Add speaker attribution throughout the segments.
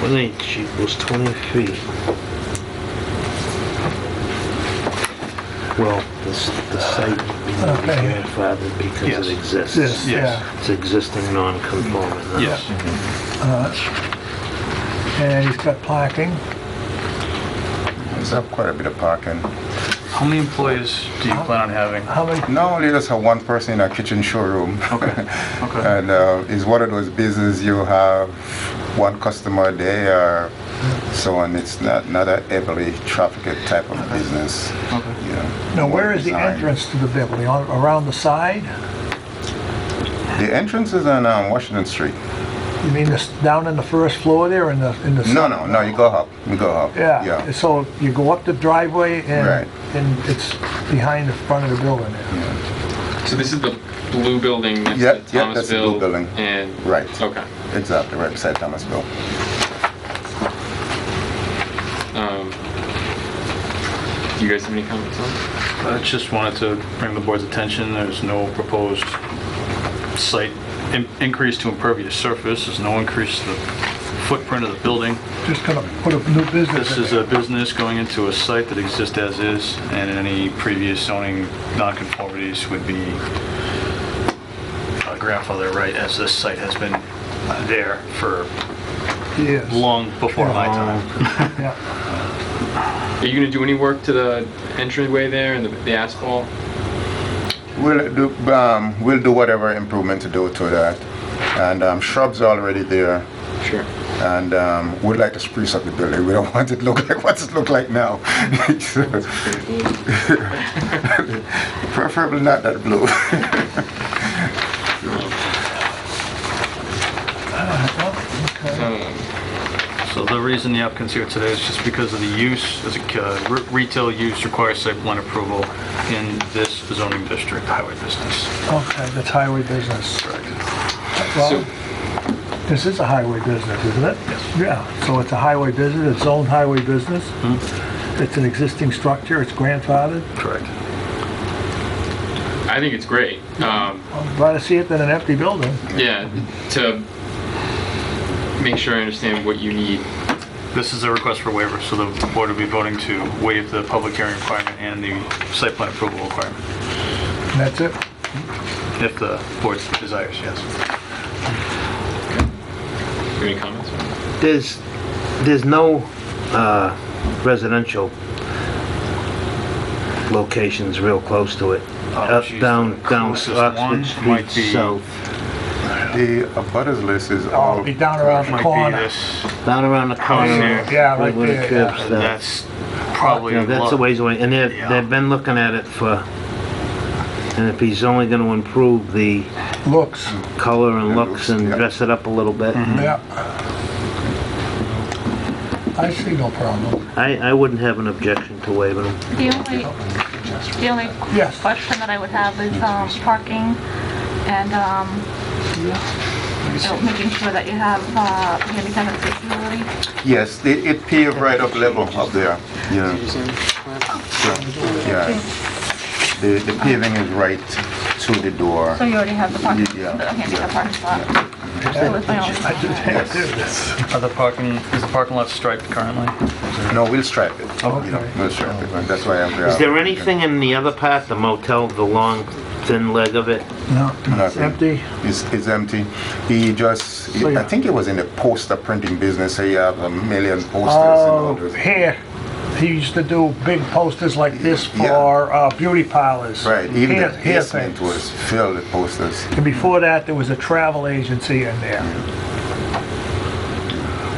Speaker 1: One inch equals 20 feet. Well, this, the site would be
Speaker 2: Okay.
Speaker 1: grandfathered because
Speaker 3: Yes.
Speaker 1: it
Speaker 2: This,
Speaker 1: exists.
Speaker 2: yeah.
Speaker 1: It's existing non-conforming. huh?
Speaker 3: Yes.
Speaker 2: And he's got parking.
Speaker 4: There's up quite a bit of parking.
Speaker 3: How many employees do you plan on having?
Speaker 2: How many,
Speaker 4: Normally, you just have one person in a kitchen showroom.
Speaker 3: Okay, okay.
Speaker 4: And uh, it's one of those business you have one customer a day or so on. It's not, not a heavily trafficked type of business.
Speaker 3: Okay.
Speaker 4: You know.
Speaker 2: now where is the
Speaker 4: Design.
Speaker 2: entrance to the building? On- Around the side?
Speaker 4: The entrance is on um, Washington Street.
Speaker 2: You mean this, down in the first floor there in the, in the?
Speaker 4: No, no, no, you go up. You go up.
Speaker 2: Yeah,
Speaker 4: Yeah.
Speaker 2: so you go up the driveway
Speaker 4: Right.
Speaker 2: and, and it's behind the front of the building there.
Speaker 5: So this is the blue building next
Speaker 4: Yeah,
Speaker 5: to Thomasville?
Speaker 4: yeah, that's the blue building.
Speaker 5: And?
Speaker 4: Right.
Speaker 5: Okay.
Speaker 4: Exactly, right beside Thomasville.
Speaker 5: Um, Do you guys have any comments on?
Speaker 3: I
Speaker 5: it?
Speaker 3: just wanted to bring the board's attention, there's no proposed site in- increase to impervious surface, there's no increase to the footprint of the building.
Speaker 2: Just gonna put a new business
Speaker 3: This
Speaker 2: in
Speaker 3: is a
Speaker 2: there.
Speaker 3: business going into a site that exists as is, and any previous zoning nonconformities would be uh, grandfathered right, as this site has been uh, there for
Speaker 2: Yes.
Speaker 3: long before my
Speaker 1: Um,
Speaker 3: time.
Speaker 2: Yeah.
Speaker 5: Are you going to do any work to the entryway there and the the asphalt?
Speaker 4: We'll do, um, we'll do whatever improvement to do to that. And um, shrubs are already there.
Speaker 5: Sure.
Speaker 4: and um, we'd like to spruce up the building. We don't want it to look like what it look like now. So- Preferably not that blue.
Speaker 2: Oh,
Speaker 5: Um,
Speaker 3: So the reason the applicant's here today is just because of the use, as a uh, re- retail use requires site plan approval in this zoning district, highway business.
Speaker 2: Okay, that's highway business.
Speaker 5: So,
Speaker 2: Well, this is a highway business, isn't it? Yes. Yeah, so it's a highway business, it's own highway business. It's an existing structure, it's grandfathered.
Speaker 3: Correct.
Speaker 5: I think it's great. Um,
Speaker 2: I'd rather see it than an empty building.
Speaker 5: Yeah, to make sure I understand what you need.
Speaker 3: This is a request for waiver, so the board will be voting to waive the public hearing requirement and the site plan approval requirement,
Speaker 2: And that's it.
Speaker 3: if the board desires, yes.
Speaker 5: Any comments?
Speaker 1: There's, there's no uh, residential locations real close to it. Up,
Speaker 3: geez, Oh, the
Speaker 1: Down, down
Speaker 3: closest one
Speaker 1: Oxford
Speaker 3: might
Speaker 1: Street
Speaker 3: be-
Speaker 1: South,
Speaker 4: the abutters list is
Speaker 2: Oh,
Speaker 4: all
Speaker 2: it'd be down around the
Speaker 3: Might be
Speaker 2: corner.
Speaker 3: this,
Speaker 1: down around the corner.
Speaker 3: there.
Speaker 2: Yeah, right
Speaker 1: where the
Speaker 2: there,
Speaker 1: curbs
Speaker 2: yeah.
Speaker 1: stop.
Speaker 3: that's probably.
Speaker 1: Yeah, that's a
Speaker 3: lot-
Speaker 1: ways away, and they've,
Speaker 3: Yeah.
Speaker 1: they've been looking at it for, and if he's only gonna improve the
Speaker 2: Looks,
Speaker 1: color and
Speaker 4: Yeah,
Speaker 1: looks and
Speaker 4: yeah.
Speaker 1: dress it up a little bit,
Speaker 2: yeah. I see no problem.
Speaker 1: I, I wouldn't have an objection to waiving them.
Speaker 6: The only, the only
Speaker 2: Yes.
Speaker 6: question that I would have is um, parking and um, you know, making sure that you have uh, handicap accessibility.
Speaker 4: yes. It, it paved right up level up there. Yeah, yeah. The, the paving is right to the door.
Speaker 6: So you already have the parking,
Speaker 4: Yeah,
Speaker 6: the handicap
Speaker 4: yeah.
Speaker 6: parking spot. That was my only
Speaker 2: I just
Speaker 6: concern.
Speaker 2: had this.
Speaker 3: Are the parking, is the parking lot striped currently?
Speaker 4: No, we'll stripe it.
Speaker 2: Okay.
Speaker 4: You know, we'll stripe it. That's why I'm.
Speaker 1: Is there anything in the other part, the motel, the long, thin leg of it?
Speaker 2: No, it's
Speaker 4: Nothing.
Speaker 2: empty.
Speaker 4: It's, it's empty. He just,
Speaker 2: So, yeah.
Speaker 4: I think it was in the poster printing business. So you have a million posters and all
Speaker 2: Oh,
Speaker 4: those.
Speaker 2: here, he used to do big posters like this
Speaker 4: Yeah.
Speaker 2: for uh, beauty parlors.
Speaker 4: Right, even
Speaker 2: Here-
Speaker 4: the
Speaker 2: here
Speaker 4: basement
Speaker 2: things.
Speaker 4: was filled with posters.
Speaker 2: And before that, there was a travel agency in there.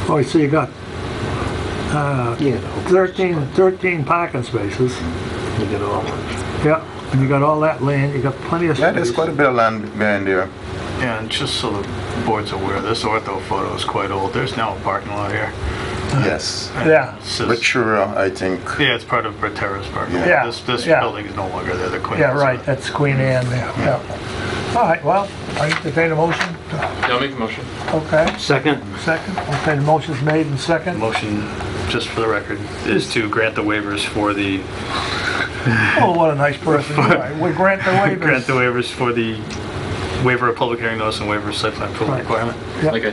Speaker 2: Oh, so you got
Speaker 1: Yeah.
Speaker 2: 13, 13 parking spaces.
Speaker 1: You get all,
Speaker 2: Yeah, and you got all that land, you got plenty of space.
Speaker 4: Yeah, there's quite a bit of land behind there.
Speaker 3: Yeah, and just so the board's aware, this ortho photo is quite old. There's now a parking lot here.
Speaker 2: Ah.
Speaker 4: Yes.
Speaker 2: Yeah,
Speaker 3: It says-
Speaker 4: Ritura, I think.
Speaker 3: Yeah, it's part of Bretera's parking lot.
Speaker 2: Yeah.
Speaker 3: This, this
Speaker 2: Yeah.
Speaker 3: building is no longer there, the Queen.
Speaker 2: yeah, right, that's Queen Anne there, yeah. All right, well, I entertain a motion,
Speaker 5: Yeah, I'll make a motion.
Speaker 2: okay,
Speaker 1: second,
Speaker 2: second, okay, the motion's made and second.
Speaker 3: Motion, just for the record, is to grant the waivers for the,
Speaker 2: Oh, what a nice person you are, we grant the waivers.
Speaker 3: grant the waivers for the waiver of public hearing notice and waiver of site plan approval
Speaker 2: Right.
Speaker 3: requirement.
Speaker 2: Yep.
Speaker 5: Like I